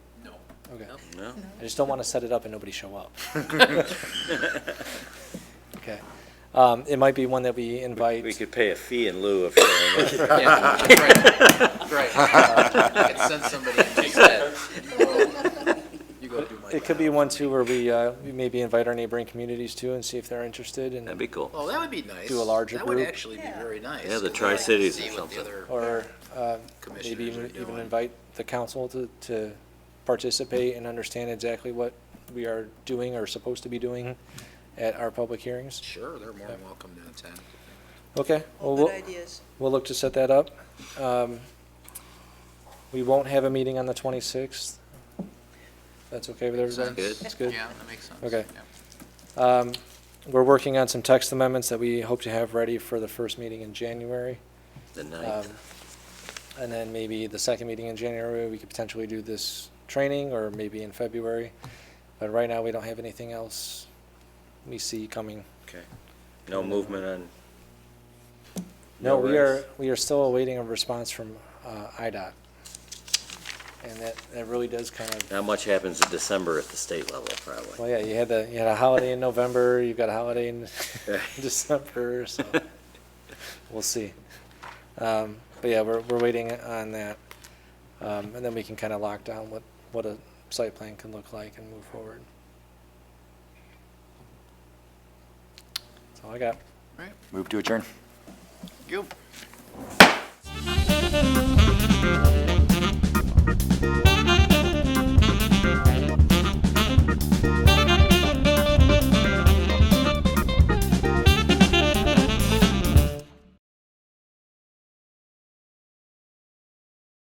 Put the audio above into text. Okay. No. No? I just don't want to set it up and nobody show up. Okay. Um, It might be one that we invite. We could pay a fee in lieu of showing up. Yeah, right, right. I could send somebody and take that. You go do my. It could be one too where we, uh, we maybe invite our neighboring communities too and see if they're interested That'd and, be cool. Oh, that would be nice. Do a larger That would group. actually be very nice. Yeah, the I'd Tri-Cities like to or see what the something. other or uh, maybe commissioners are even even doing. invite the council to, to participate and understand exactly what we are doing or supposed to be doing at our public hearings. Sure, they're more than welcome to attend. Okay, well, Good we'll, ideas. we'll look to set that up. Um, We won't have a meeting on the 26th. That's okay with everybody? good. That's good? that makes sense. Okay. Um, We're working on some text amendments that we hope to have ready for the first meeting in January. The Um, ninth. And then maybe the second meeting in January, we could potentially do this training, or maybe in February. But right now, we don't have anything else we see coming. Okay. No movement on? No, we are, rights? we are still awaiting a response from uh, IDOT. And that, that really does kind of, Not much happens in December at the state level, well, probably. yeah, you had the, you had a holiday in November, you've got a holiday in December, so we'll see. Um, But yeah, we're, we're waiting on that. Um, And then we can kind of lock down what, what a site plan can look like and move forward. That's all I got. Right, Move to adjourn. you.